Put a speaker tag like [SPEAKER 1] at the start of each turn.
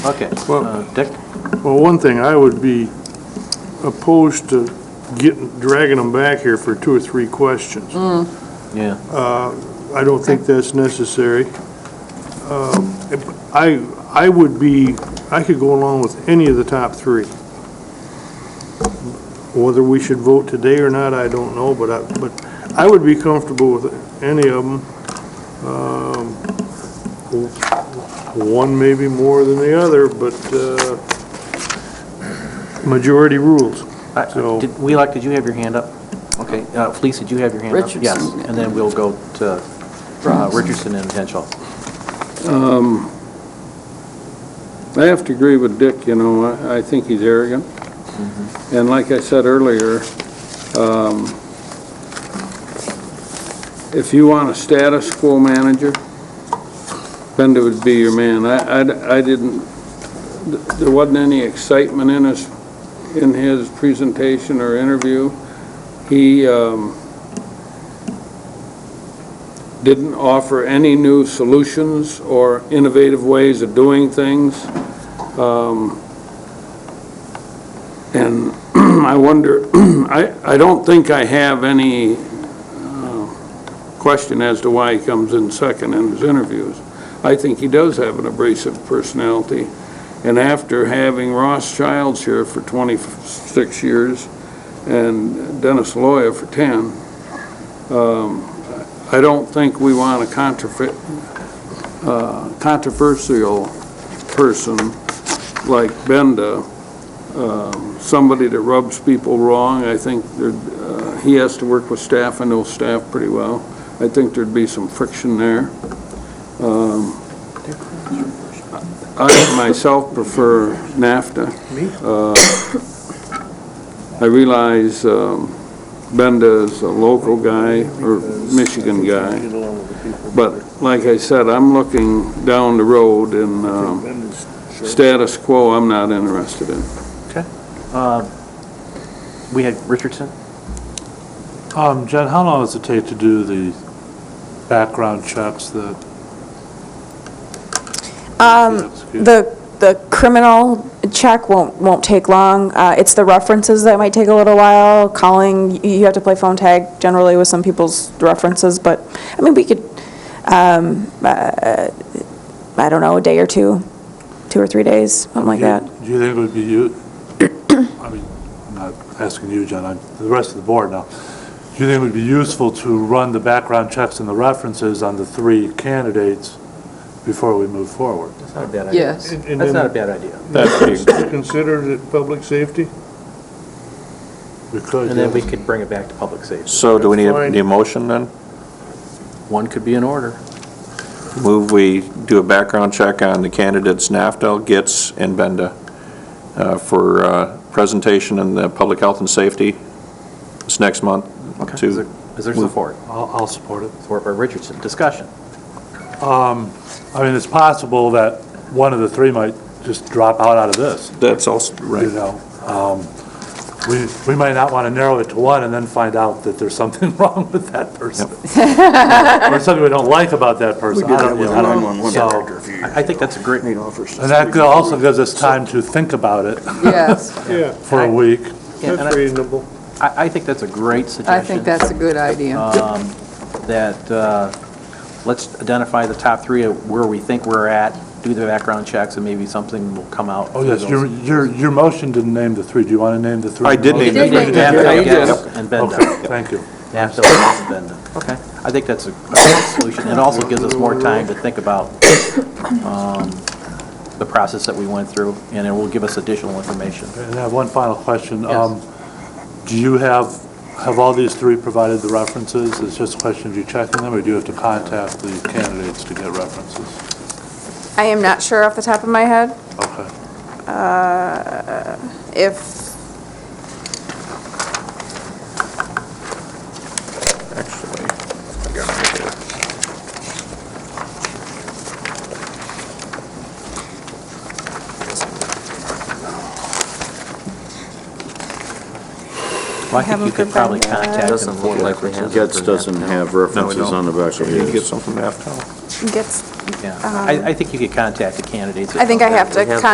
[SPEAKER 1] Okay,
[SPEAKER 2] Well-
[SPEAKER 1] Uh, Dick?
[SPEAKER 2] Well, one thing, I would be opposed to getting, dragging them back here for two or three questions.
[SPEAKER 1] Yeah,
[SPEAKER 2] I don't think that's necessary. Um, if- I, I would be, I could go along with any of the top three. Whether we should vote today or not, I don't know, but I, but I would be comfortable with any of them. Um, One maybe more than the other, but uh, majority rules.
[SPEAKER 1] I- I-
[SPEAKER 2] So-
[SPEAKER 1] did, Wheelock, did you have your hand up? Okay, uh, Felice, did you have your hand up?
[SPEAKER 3] Richardson,
[SPEAKER 1] Yes,
[SPEAKER 3] yeah.
[SPEAKER 1] and then we'll go to uh, Richardson and Henshaw.
[SPEAKER 4] I have to agree with Dick, you know, I, I think he's arrogant. And like I said earlier, um, if you want a status quo manager, Bender would be your man. I, I- I didn't, th- there wasn't any excitement in his, in his presentation or interview. He, um, didn't offer any new solutions or innovative ways of doing things. Um, And I wonder, I, I don't think I have any uh, question as to why he comes in second in his interviews. I think he does have an abrasive personality, and after having Ross Childs here for 26 years and Dennis Loya for 10, I don't think we want a controver- uh, controversial person like Benda, um, somebody that rubs people wrong. I think there- uh, he has to work with staff, I know staff pretty well. I think there'd be some friction there. Um, I myself prefer NAFTA. Uh, I realize um, Benda is a local guy, or Michigan guy. But like I said, I'm looking down the road and um, status quo, I'm not interested in.
[SPEAKER 1] Uh, We had Richardson?
[SPEAKER 5] Um, Jen, how long does it take to do the background checks that?
[SPEAKER 6] Um, The, the criminal check won't, won't take long. Uh, It's the references that might take a little while, calling, y- you have to play phone tag generally with some people's references, but, I mean, we could, um, uh, I don't know, a day or two, two or three days, something like that.
[SPEAKER 5] Do you think it would be you, I mean, I'm not asking you, Jen, I'm the rest of the board now. Do you think it would be useful to run the background checks and the references on the three candidates before we move forward?
[SPEAKER 1] That's not a bad idea.
[SPEAKER 3] Yes.
[SPEAKER 2] And- and
[SPEAKER 1] That's not a
[SPEAKER 2] then
[SPEAKER 1] bad idea.
[SPEAKER 2] Considered it public safety?
[SPEAKER 5] We could.
[SPEAKER 1] And then we
[SPEAKER 5] yes.
[SPEAKER 1] could bring it back to public safety.
[SPEAKER 7] So do we need a,
[SPEAKER 2] Fine.
[SPEAKER 7] need a motion then?
[SPEAKER 1] One could be in order.
[SPEAKER 7] Move we do a background check on the candidates Naftal, Gitz, and Benda uh, for uh, presentation in the Public Health and Safety this next month.
[SPEAKER 1] Okay. Is there-
[SPEAKER 7] To,
[SPEAKER 1] is there support?
[SPEAKER 5] I'll, I'll support it.
[SPEAKER 1] Support by Richardson. Discussion.
[SPEAKER 5] I mean, it's possible that one of the three might just drop out out of this.
[SPEAKER 7] that's also,
[SPEAKER 5] you
[SPEAKER 7] right.
[SPEAKER 5] know. Um, We, we might not want to narrow it to one and then find out that there's something wrong with that person. Or something we don't like about that person. I don't- I don't- so-
[SPEAKER 1] I I think that's a great,
[SPEAKER 5] And that also gives us time to think about it
[SPEAKER 3] Yes,
[SPEAKER 2] Yeah,
[SPEAKER 5] for a week.
[SPEAKER 1] Yeah, and
[SPEAKER 2] that's
[SPEAKER 1] I-
[SPEAKER 2] reasonable.
[SPEAKER 1] I, I think that's a great suggestion.
[SPEAKER 3] I think that's a good idea.
[SPEAKER 1] um, that, uh, let's identify the top three of where we think we're at, do the background checks, and maybe something will come out.
[SPEAKER 5] Oh, yes, your, your, your motion didn't name the three. Do you want to name the three?
[SPEAKER 7] I did name
[SPEAKER 3] the three.
[SPEAKER 1] NAFTA,
[SPEAKER 7] You did.
[SPEAKER 1] yes, and Benda.
[SPEAKER 5] Okay, thank you.
[SPEAKER 1] NAFTA, yes, and Benda. Okay. I think that's a great solution. It also gives us more time to think about um, the process that we went through, and it will give us additional information.
[SPEAKER 5] And I have one final question. Um, Do you have, have all these three provided the references? It's just a question of you checking them, or do you have to contact the candidates to get references?
[SPEAKER 6] I am not sure off the top of my head
[SPEAKER 5] Okay.
[SPEAKER 6] if
[SPEAKER 7] Actually,
[SPEAKER 1] Well, I think you
[SPEAKER 6] Haven't
[SPEAKER 1] could probably
[SPEAKER 6] provided that.
[SPEAKER 1] contact them
[SPEAKER 8] Doesn't
[SPEAKER 1] for
[SPEAKER 8] look like we have.
[SPEAKER 1] references.
[SPEAKER 8] Getz doesn't have references on the back of
[SPEAKER 7] Did you get
[SPEAKER 8] his.
[SPEAKER 7] some from Naftal?
[SPEAKER 6] it gets,
[SPEAKER 1] Yeah. I, I think you could contact the candidates.
[SPEAKER 6] I think I have to
[SPEAKER 8] We have